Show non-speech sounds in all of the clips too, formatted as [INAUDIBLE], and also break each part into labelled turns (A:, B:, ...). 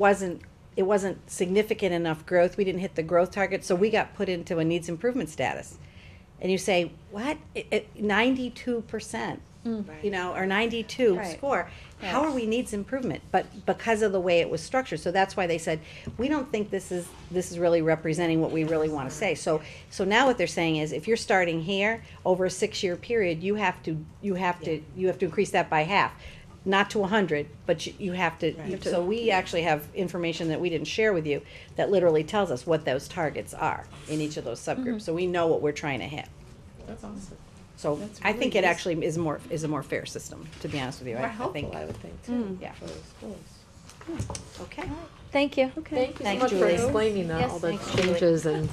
A: wasn't, it wasn't significant enough growth, we didn't hit the growth target, so we got put into a needs improvement status. And you say, what, ninety-two percent, you know, or ninety-two
B: Right.
A: score, how are we needs improvement? But because of the way it was structured, so that's why they said, we don't think this is, this is really representing what we really wanna say. So, so now what they're saying is, if you're starting here, over a six-year period, you have to, you have to, you have to increase that by half. Not to a hundred, but you- you have to, you- so we actually have information that we didn't share with you that literally tells us what those targets are in each of those subgroups, so we know what we're trying to hit.
C: That's awesome.
A: So
C: That's
A: I think
C: really
A: it
C: nice.
A: actually is more, is a more fair system, to be honest with you. I-
C: More
A: I think-
C: helpful, I would think, too.
A: Yeah.
C: for the schools.
A: Okay.
B: Thank you.
C: Thank you so
B: Thanks,
C: much for
B: Julie.
C: explaining that,
B: Yes,
C: all the
B: thanks, Julie.
C: changes and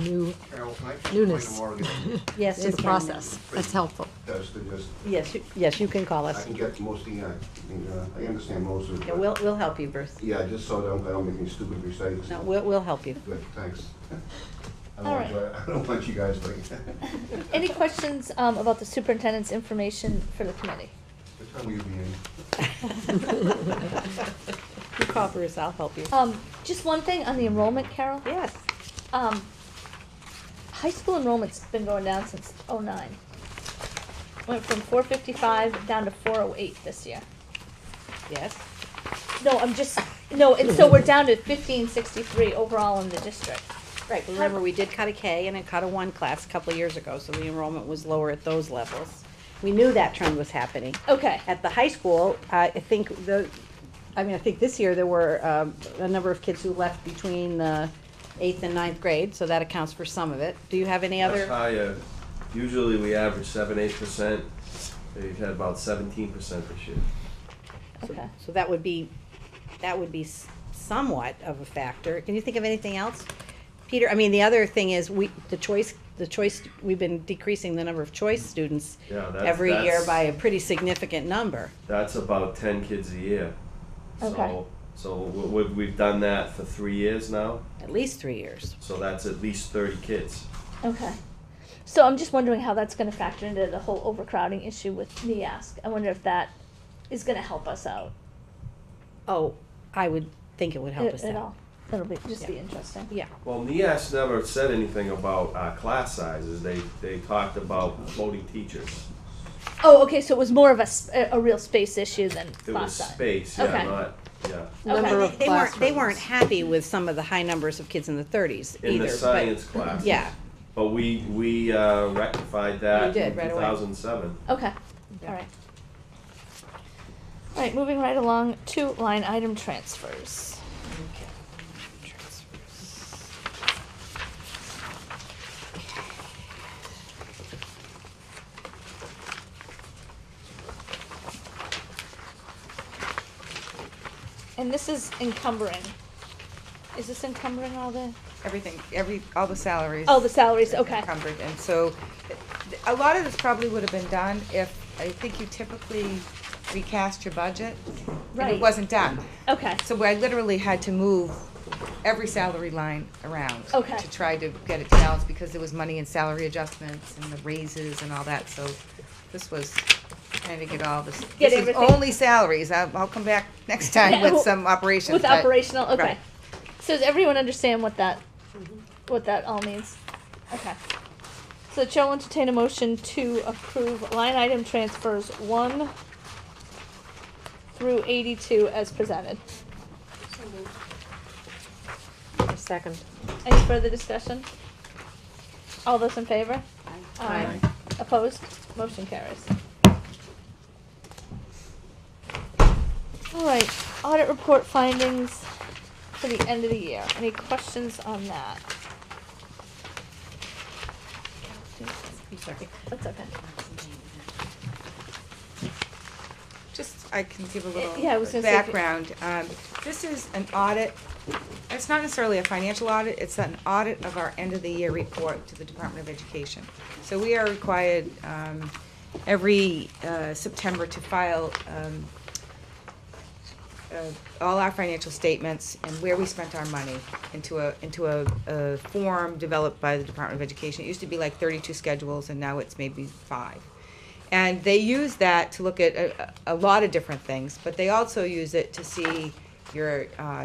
C: [LAUGHS] new,
D: Carol, can I just point
C: Newness.
D: to Morgan?
A: Yes,
C: to the process. That's helpful.
D: Does the, just,
A: Yes, you- yes, you can call
D: I
A: us.
D: can get most of the, uh, the, uh, I understand most of it.
A: Yeah,
D: but-
A: we'll, we'll help you, Bruce.
D: Yeah, just so I don't, I don't make any stupid mistakes.
A: No, we'll, we'll help [LAUGHS] you.
D: Good, thanks. I
B: All
D: don't want to, I don't want you guys like.
B: Any questions um, about the superintendent's information for the committee?
D: What time will you be in?
A: You call Bruce, I'll help you.
B: Um, just one thing on the enrollment, Carol.
A: Yes.
B: Um, high school enrollment's been going down since '09. Went from four fifty-five down to four oh eight this year.
A: Yes.
B: No, I'm just, no, and so we're down to fifteen sixty-three overall in the district.
A: Right, but remember, we did cut a K and a cut a one class a couple of years ago, so the enrollment was lower at those levels. We knew that trend was happening.
B: Okay,
A: At the high school, I think the, I mean, I think this year there were um, a number of kids who left between the eighth and ninth grade, so that accounts for some of it. Do you have any
E: That's
A: other?
E: high, uh, usually we average seven, eight percent. They've had about seventeen percent this year.
B: okay.
A: So that would be, that would be s- somewhat of a factor. Can you think of anything else? Peter, I mean, the other thing is, we, the choice, the choice, we've been decreasing the number of choice students
E: Yeah, that's.
A: every year
E: that's-
A: by a pretty significant number.
E: That's about ten kids a year.
B: Okay.
E: So- So we- we- we've done that for three years now,
A: at least three years.
E: so that's at least thirty kids.
B: Okay. So I'm just wondering how that's gonna factor into the whole overcrowding issue with NEASC. I wonder if that is gonna help us out
A: Oh, I would think it would help
B: at,
A: us out.
B: at all. It'll be, just be
A: Yeah.
B: interesting.
A: Yeah,
E: Well, NEAS never said anything about uh, class sizes. They, they talked about floating teachers.
B: Oh, okay, so it was more of a, s- a- a real space issue than
E: It was
B: class size.
E: space, yeah,
B: Okay.
E: not, yeah.
B: Number
A: They-
B: of
A: they weren't, they weren't happy with some of the high numbers of kids in the thirties either.
E: In the
A: but-
E: science class.
A: Yeah,
E: But we, we uh, rectified
A: You
E: that
A: did,
E: in two
A: right away.
E: thousand seven.
B: Okay, all right. All right, moving right along to line item transfers. And this is encumbering. Is this encumbering all the,
F: Everything, every, all the salaries.
B: oh, the salaries, okay.
F: Encumbered, and so, th- th- a lot of this probably would have been done if, I think you typically recast your budget. And
B: Right.
F: it wasn't done,
B: Okay,
F: so I literally had to move every salary line around.
B: Okay.
F: To try to get it balanced, because there was money in salary adjustments and the raises and all that, so this was trying to get all this.
B: Get
F: this is
B: everything-
F: Only salaries, I'll, I'll come back
B: [LAUGHS]
F: next time
B: Yeah,
F: with some operations.
B: with
F: but-
B: operational, okay.
F: right.
B: So does everyone understand what that, what that all means? Okay. So the chair will entertain a motion to approve line item transfers one through eighty-two as presented.
C: Second.
B: Any further discussion? All those in favor? Aye. Opposed? Motion carries. All right, audit report findings for the end of the year. Any questions on that? That's okay.
F: Just, I can give a little
B: yeah, I was gonna say if you-
F: background. Um, This is an audit, it's not necessarily a financial audit, it's an audit of our end-of-the-year report to the Department of Education. So we are required um, every uh, September to file um, uh, all our financial statements and where we spent our money into a, into a, a form developed by the Department of Education. It used to be like thirty-two schedules and now it's maybe five. And they use that to look at a, a a lot of different things, but they also use it to see your, uh,